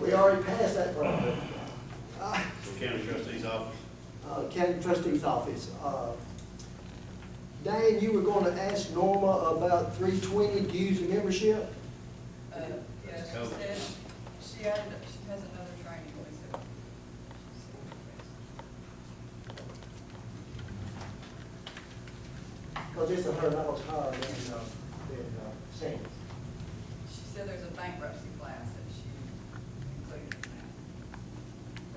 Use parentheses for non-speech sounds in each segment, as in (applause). We already passed that problem. Uh, County Trustee's Office. uh, County Trustee's Office. Uh, Dan, you were gonna ask Norma about three twenty dues and membership? Uh, yeah, she Covered. said, she added, up- she has another training, so. Cause this is her, that was higher than, uh, than, uh, Sandy's. She said there's a bankruptcy class that she included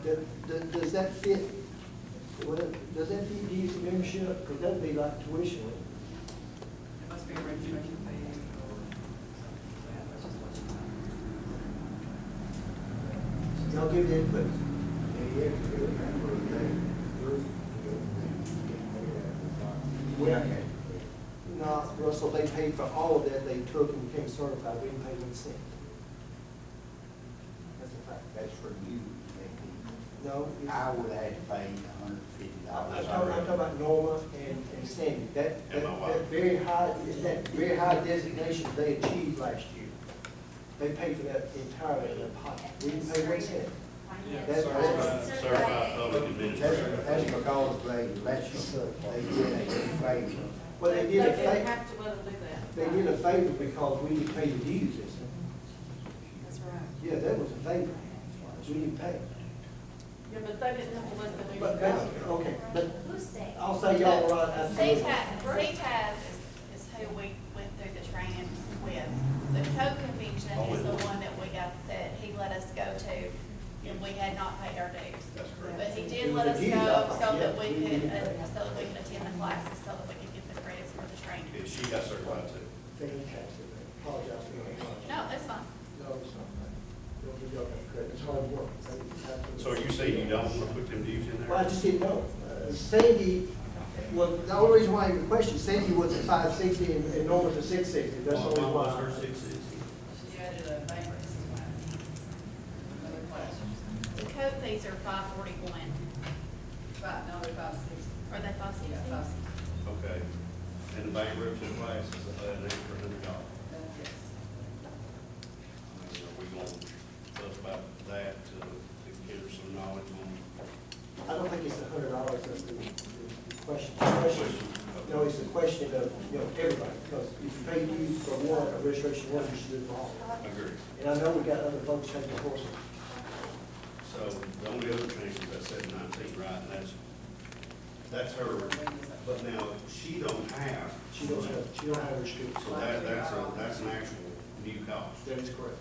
Does, in that. does- does that fit, well, does that fit dues and membership? Cause that'd be like tuition. wouldn't it? It must be a registration fee or something, like that, that's just what she found. Y'all give the input. No, Russell, they paid for all of that they took and became certified, we didn't pay one cent. That's a fact. That's for you, No? maybe. it's- I would have to pay a hundred fifty I'm dollars. talking, I'm talking about Norma and, and Sandy, that, that, And my wife. that very high, that very high designation they achieved last year. They paid for that entirely in their pocket, we didn't pay one cent. That's Certified, right. certified public That's, that's administrator. because they let you, they did a favor. Well, they did a They didn't favor, have to let them do they that. did a favor because we didn't pay the dues, that's, That's right. yeah, that was a favor, we didn't pay. Yeah, but they didn't have to let them do But, that. but, okay, but Who's that? I'll say y'all were right, I see. CTAS is, is who we went through the training with. The co-convention is the one that we got, that he let us go to, and we had not paid our dues. That's correct. But he did let us go so that we could, uh, so that we could attend the classes, so that we could get the credits for the training. And she got certified too. Fantastic, I apologize for that. No, that's fine. No, it's not. Don't give y'all that credit. It's hard work. It's like you have to- So are you saying you don't want to put them dues in Well, I there? just didn't know. Uh, Sandy, well, the only reason why I even questioned, Sandy was at five sixty and and Norman was at six sixty. That's the only Mine was why. her six sixty. She added a bankruptcy class, another class, The code fees are five forty-one, five, no, they're five sixty, or they five yeah, five sixty? sixty, Okay. And the bankruptcy class is an extra hundred dollars. that's yes. I mean, are we going to fuss about that to, to get her some knowledge on? I don't think it's a hundred dollars that's the the question. The question- No, it's the question of, you know, everybody, because if you pay dues for one, a registration one, you should do it for all. Agreed. And I know we got other folks taking courses. So the only other change is that seven nineteen, right, and that's, that's her, but now, she don't have. She don't have, she don't have her students. So that, that's a, that's an actual new cost. That is correct.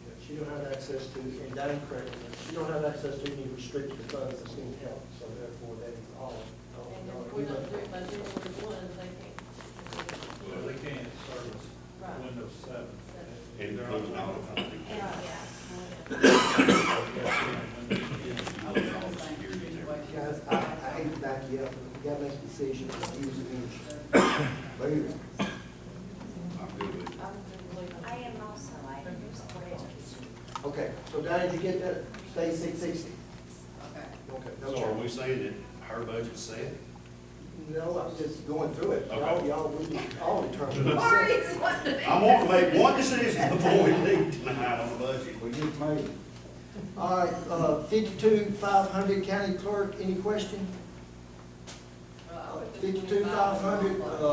Yeah, She don't have access to, and that is correct, she don't have access to any restricted funds that's being held, so therefore that is all. all- And all- if we don't do it by January one, they can't. Well, they can't service Right. Windows seven. It becomes an auto company. And, yeah. All security and everything. Guys, I, I hate to back you up, but we gotta make decisions, use the energy. Later. I'm good with it. I would believe I am also, I am supported. Okay, so Donnie, did you get that, stay six sixty? Okay. Okay. no So are change. we saying that her budget's set? No, I'm just going through it, y'all, Okay. y'all, we all determine. (laughs) what's Marty, set. what the? I want to make one decision before we leave tonight on the budget. We just made it. All right, uh, fifty-two, five hundred, county clerk, any question? Well, I put the Fifty-two, five hundred, 25 on.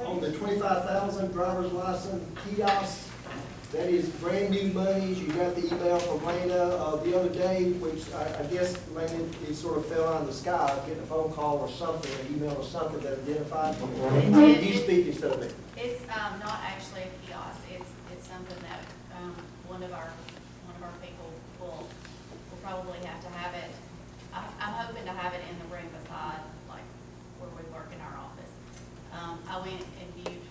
uh, on the twenty-five thousand driver's license kiosk. That is brand new monies. You got the email from Lana, uh, the other day, which I, I guess Lana, it sort of fell out of the sky, getting a phone call or something, an email or something that identified. did. You speak instead of me. It's, um, not actually a kiosk, it's, it's something that, um, one of our, one of our people will, will probably have to have it. I, I'm hoping to have it in the room beside, like, where we work in our office. Um, I went and viewed um, um, um,